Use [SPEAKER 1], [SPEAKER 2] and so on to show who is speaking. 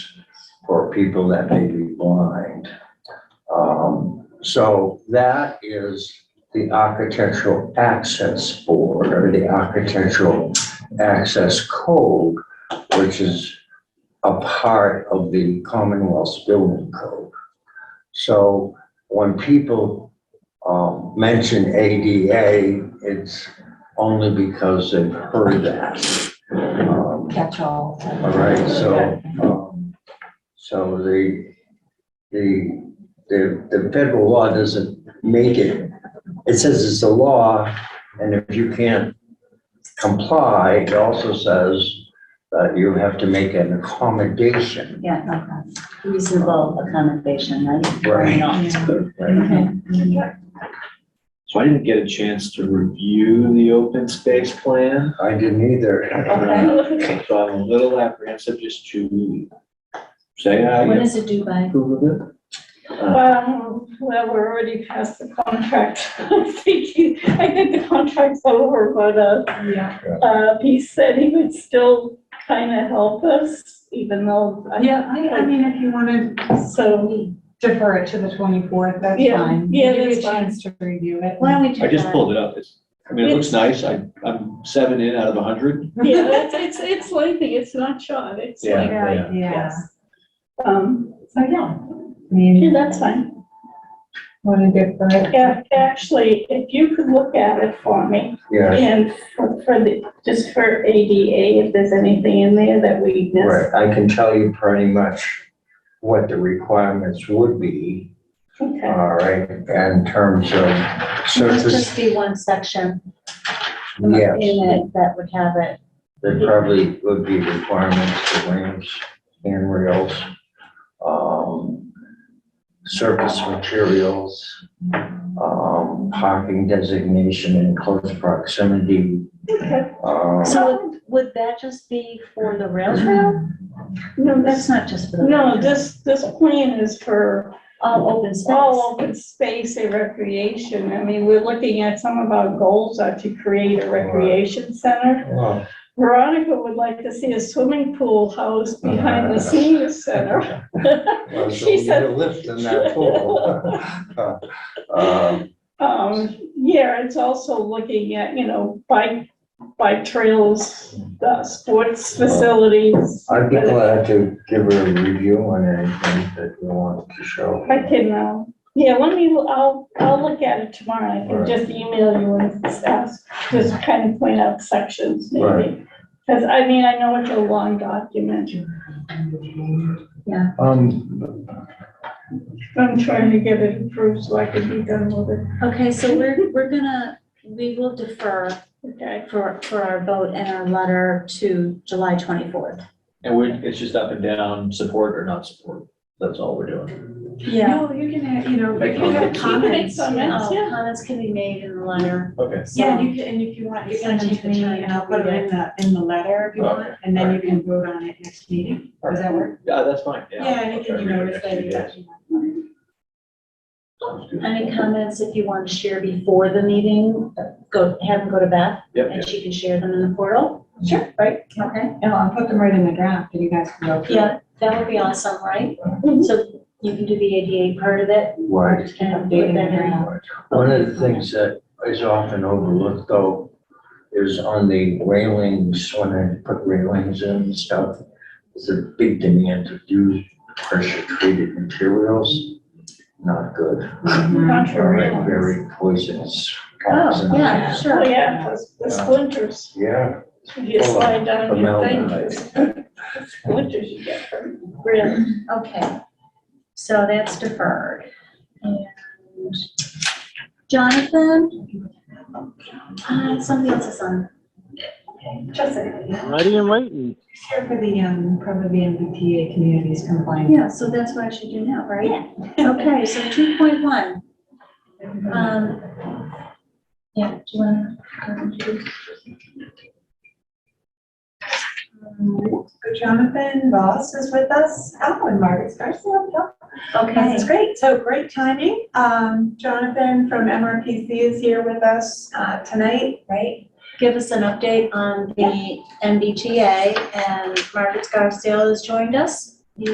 [SPEAKER 1] people that may be blind. Um, so that is the Architectural Access Board or the Architectural Access Code, which is a part of the Commonwealth's Building Code. So when people, um, mention ADA, it's only because they've heard that. Um,
[SPEAKER 2] catch-all.
[SPEAKER 1] all right, so, um, so the, the, the, the federal law doesn't make it, it says it's a law, and if you can't comply, it also says that you have to make an accommodation.
[SPEAKER 3] Yeah, okay. reasonable accommodation, right? Or
[SPEAKER 1] Right.
[SPEAKER 3] not.
[SPEAKER 1] right?
[SPEAKER 4] So I didn't get a chance to review the open space plan.
[SPEAKER 1] I didn't either.
[SPEAKER 5] Um,
[SPEAKER 4] Uh, So I'm a little apprehensive just to say
[SPEAKER 3] What
[SPEAKER 4] I
[SPEAKER 3] does it do by?
[SPEAKER 4] approve of it.
[SPEAKER 5] Well, well, we're already past the contract. I'm thinking, I think the contract's over, but, uh, uh, he said he would still kind of help us, even though. I-
[SPEAKER 2] Yeah, I, I mean, if you want to
[SPEAKER 5] So,
[SPEAKER 2] defer it to the 24th, that's
[SPEAKER 5] Yeah,
[SPEAKER 2] fine.
[SPEAKER 5] yeah,
[SPEAKER 2] Give you a
[SPEAKER 5] that's fine.
[SPEAKER 2] chance to review it.
[SPEAKER 3] Why don't we do
[SPEAKER 4] I just
[SPEAKER 3] that?
[SPEAKER 4] pulled it up. It's, I mean, it looks nice. I, I'm seven in out of a hundred.
[SPEAKER 5] yeah, it's, it's, it's lengthy, it's not short, it's
[SPEAKER 4] Yeah.
[SPEAKER 5] like,
[SPEAKER 2] Yeah, yeah.
[SPEAKER 5] yes. Um,
[SPEAKER 2] So, yeah. I
[SPEAKER 5] yeah,
[SPEAKER 2] mean,
[SPEAKER 5] that's fine.
[SPEAKER 2] want to defer it?
[SPEAKER 5] Yeah, actually, if you could look at it for me,
[SPEAKER 1] Yeah,
[SPEAKER 5] and for for the, just for ADA, if there's anything in there that we missed.
[SPEAKER 1] right, I can tell you pretty much what the requirements would be,
[SPEAKER 5] Okay.
[SPEAKER 1] all right, in terms of
[SPEAKER 3] Should this
[SPEAKER 1] surface,
[SPEAKER 3] just be one section in
[SPEAKER 1] yes.
[SPEAKER 3] it that would have it?
[SPEAKER 1] There probably would be requirements for ramps, handrails, um, surface materials, um, parking designation in close proximity.
[SPEAKER 5] Okay.
[SPEAKER 1] um,
[SPEAKER 3] So would that just be for the rail trail?
[SPEAKER 5] No, that's
[SPEAKER 3] That's not just for the. rail
[SPEAKER 5] No,
[SPEAKER 3] trail.
[SPEAKER 5] this, this plan is for
[SPEAKER 3] All open space.
[SPEAKER 5] all open space and recreation. I mean, we're looking at some of our goals are to create a recreation center.
[SPEAKER 1] well,
[SPEAKER 5] Veronica would like to see a swimming pool house behind the senior center.
[SPEAKER 1] well, so
[SPEAKER 5] She
[SPEAKER 1] we need a
[SPEAKER 5] said,
[SPEAKER 1] lift in that pool. Um,
[SPEAKER 5] um, yeah, it's also looking at, you know, bike, bike trails, uh, sports facilities.
[SPEAKER 1] I'd be glad to give her a review on anything that you want to show.
[SPEAKER 5] I can, uh, yeah, let me, I'll, I'll look at it tomorrow. I can just email you and ask, just kind of point out sections maybe.
[SPEAKER 1] Right.
[SPEAKER 5] Because I mean, I know it's a long document.
[SPEAKER 1] Um,
[SPEAKER 5] I'm trying to get it approved so I can be done with it.
[SPEAKER 3] Okay, so we're, we're gonna, we will defer
[SPEAKER 5] Okay.
[SPEAKER 3] for, for our vote and our letter to July twenty-fourth.
[SPEAKER 4] And we're, it's just up and down, support or not support. That's all we're doing.
[SPEAKER 3] Yeah.
[SPEAKER 2] No, you can, have- you know,
[SPEAKER 4] Make
[SPEAKER 2] you can have
[SPEAKER 4] comments.
[SPEAKER 5] You can make
[SPEAKER 2] comments.
[SPEAKER 5] comments,
[SPEAKER 3] Uh,
[SPEAKER 5] yeah.
[SPEAKER 3] Comments can be made in the letter.
[SPEAKER 4] Okay.
[SPEAKER 2] Yeah, you can, and if you want, you
[SPEAKER 3] You're gonna
[SPEAKER 2] can take
[SPEAKER 3] take the
[SPEAKER 2] me
[SPEAKER 3] time
[SPEAKER 2] and I'll
[SPEAKER 3] to
[SPEAKER 2] put it
[SPEAKER 3] read
[SPEAKER 2] in the, in the letter if you want,
[SPEAKER 4] Okay,
[SPEAKER 2] and then you
[SPEAKER 4] alright.
[SPEAKER 2] can vote on it next meeting. Does that work?
[SPEAKER 4] Yeah, that's fine.
[SPEAKER 2] Yeah, and
[SPEAKER 4] Okay,
[SPEAKER 2] you
[SPEAKER 4] we have
[SPEAKER 2] notice
[SPEAKER 4] a
[SPEAKER 2] that
[SPEAKER 4] few
[SPEAKER 2] you
[SPEAKER 4] days.
[SPEAKER 2] got.
[SPEAKER 4] Sounds good.
[SPEAKER 3] Any comments if you want to share before the meeting, go, have them go to Beth
[SPEAKER 4] Yep,
[SPEAKER 3] and she can share them in the portal.
[SPEAKER 2] Sure.
[SPEAKER 3] Right, okay.
[SPEAKER 2] No, I'll put them right in the draft and you guys can go through.
[SPEAKER 3] Yeah, that would be awesome, right?
[SPEAKER 5] Mhm.
[SPEAKER 3] So you can do the ADA part of it
[SPEAKER 1] Right.
[SPEAKER 3] and put
[SPEAKER 2] Updating
[SPEAKER 3] that in.
[SPEAKER 2] everything.
[SPEAKER 1] One of the things that is often overlooked though is on the railings, when I put railings in and stuff, there's a big demand to use pressure treated materials. Not good,
[SPEAKER 5] Contrary.
[SPEAKER 1] Right, very poisonous.
[SPEAKER 3] Oh, yeah,
[SPEAKER 5] Oh,
[SPEAKER 3] sure.
[SPEAKER 5] yeah, the- the splinters.
[SPEAKER 1] Yeah,
[SPEAKER 5] If You slide down your
[SPEAKER 1] formaldehyde.
[SPEAKER 5] fingers. Splinters you get from, really.
[SPEAKER 3] Okay. So that's deferred. And Jonathan? Uh, something else is on.
[SPEAKER 2] Just a second.
[SPEAKER 6] Ready and waiting.
[SPEAKER 2] Here for the, um, probably the MBTA communities compliant.
[SPEAKER 3] Yeah, so that's what I should do now, right? Okay, so two point one. Um, yeah, do you wanna? um, do-
[SPEAKER 2] Um, Jonathan Ross is with us. Oh, and Margaret Scarsdale.
[SPEAKER 3] Okay,
[SPEAKER 2] That's great. So great timing. Um, Jonathan from MRPC is here with us, uh, tonight, right?
[SPEAKER 3] give us an update on the MBTA and Margaret Scarsdale has joined us.